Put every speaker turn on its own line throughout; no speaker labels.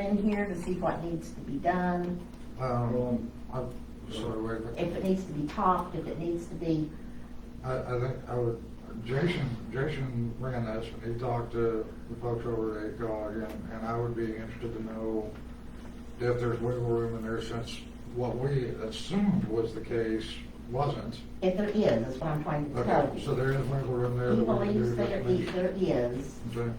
in here to see what needs to be done,
Um,
Um,
I'm sorry, wait, a
if
minute.
it needs to be topped, if it needs to be,
I, I think I would, Jason, Jason ran this and he talked to the folks over at ACOG and, and I would be interested to know if there's wiggle room in there since what we assumed was the case wasn't.
if there is, is what I'm trying to tell
Okay, so
you.
there is wiggle room there.
He
that we can do
believes there
this.
is, there is,
Okay.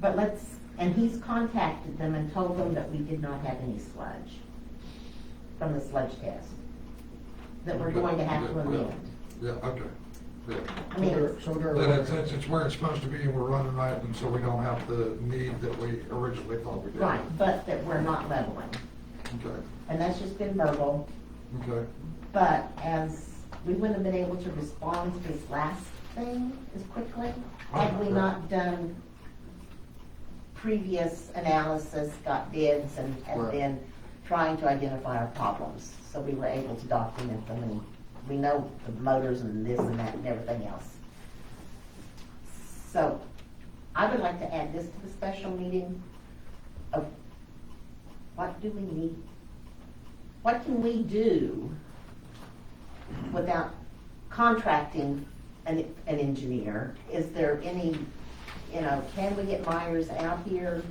but let's, and he's contacted them and told them that we did not have any sludge from the sludge test, that we're going to have to amend.
Yeah, okay, yeah.
I
So
mean,
they're,
it's-
so they're
That it's,
aware.
it's- it's where it's supposed to be, and we're running right, and so we don't have the need that we originally thought we did.
right, but that we're not leveling,
Okay,
and that's just been verbal.
okay,
But as, we wouldn't have been able to respond to this last thing as quickly had we not done previous analysis, got bids and, and
Right.
then trying to identify our problems. So we were able to document them and we know the motors and this and that and everything else. So I would like to add this to the special meeting of what do we need? What can we do without contracting an, an engineer? Is there any, you know, can we get Myers out here?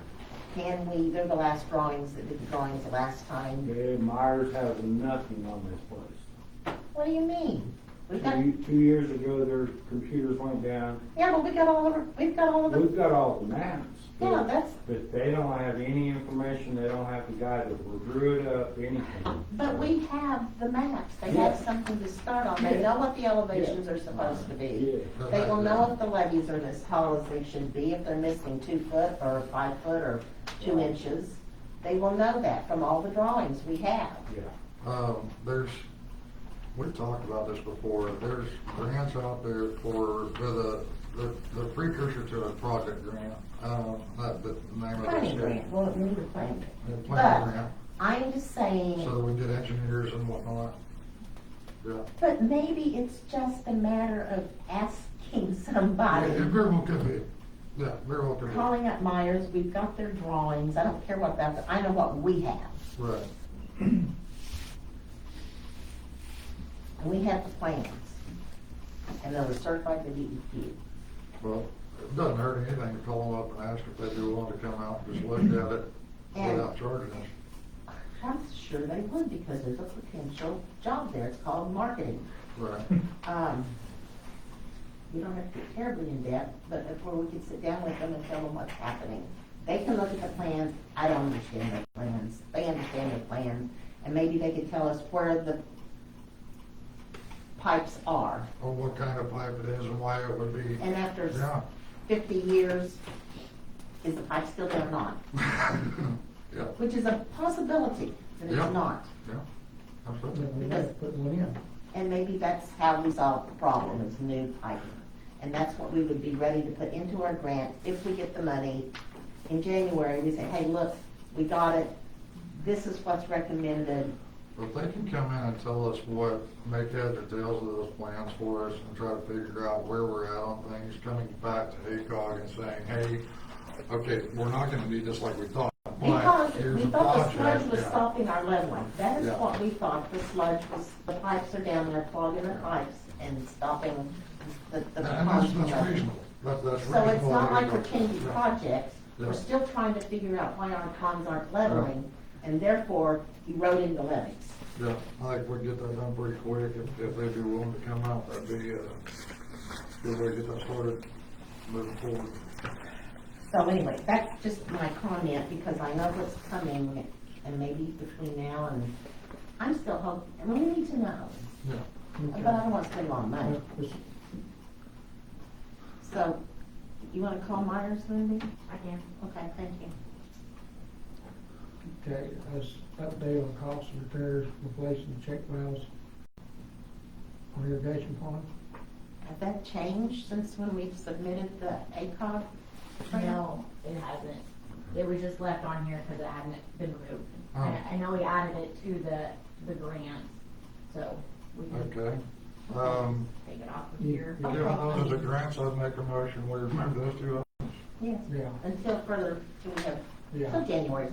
Can we, they're the last drawings that did the drawings the last time.
Yeah, Myers has nothing on this place.
What do you mean? We've got,
Two, two years ago, their computers went down.
yeah, but we got all of, our- we've got all of the,
We've got all the maps. but-
yeah, that's,
But they don't have any information, they don't have the guide that will drew it up, anything.
but we have the maps. They have
Yeah.
something to start on. They know what the elevations are supposed to be.
Yeah.
They will know if the levees are as tall as they should be, if they're missing two foot or five foot or two
Right.
inches. They will know that from all the drawings we have.
Yeah.
um, there's, we've talked about this before, there's grants out there for, for the, the- the precursor to a project grant, um, that, the name of it.
Planning grant, well, it needed a planning grant.
Yeah,
But-
Planning grant,
I'm just
so that
saying,
we get engineers and whatnot, yeah.
but maybe it's just a matter of asking
Yeah,
somebody,
It very well could be, yeah, very well could be,
calling up Myers, we've got their drawings, I don't care what that, I know what we have.
right,
And we have the plans. And they were certified by E DEQ.
well, it doesn't hurt anything to call them up and ask if they'd be willing to come out and just look at it
And-
without charging us.
I'm sure they would because there's a potential job there, it's called marketing.
Right.
Um, we don't have to get terribly in depth, but before we could sit down with them and tell them what's happening. They can look at the plans, I don't understand their plans, they understand their plans, and maybe they could tell us where the pipes are.
Or Oh, what kind of pipe it is and why it would be.
And after s-
Yeah.
fifty years, is the pipe still there or not?
Yeah,
Which is a possibility that
Yeah.
it's not.
yeah, absolutely.
Then we have to put one in.
And maybe that's how we solve the problem, is new piping. And that's what we would be ready to put into our grant if we get the money. In January, we say, hey, look, we got it, this is what's recommended.
If they can come in and tell us what, make heads or tails of those plans for us and try to figure out where we're at on things, coming back to ACOG and saying, hey, okay, we're not gonna be just like we thought. but
Because
here's
we
a
thought the
project,
sludge was
yeah.
stopping our leveling. That is
Yeah.
what we thought, the sludge was, the pipes are down there clogging the pipes and stopping the, the.
And that's,
pond
that's
leveling.
reasonable, that's, that's reasonable.
So it's not
that
like we're
go-
changing
yeah.
projects,
Yeah.
we're still trying to figure out why our ponds aren't leveling, and therefore eroding the levees.
Yeah, I think we can get that done pretty quick, if, if they'd be willing to come out, that'd be, uh, good way to get that started, moving forward.
So anyway, that's just my comment, because I know what's coming, and maybe between now and, I'm still hoping, and we need to know,
Yeah,
but I
Okay.
don't want to spend a lot of
Uh,
money.
this-
So, you want to call Myers, Lindy?
I can.
Okay, thank you.
Okay, as update on costs and repairs, replacing check valves on irrigation ponds.
Has that changed since when we've submitted the ACOG? grant?
No, it hasn't. It was just left on here because it hadn't been removed.
Oh.
I I know we added it to the, the grant, so we can
okay. Um,
take it off of
Yeah.
here.
given those are grants, I'd make a motion, we remember those two
Yes.
Yeah.
Until further, do we have
Yeah.
So January's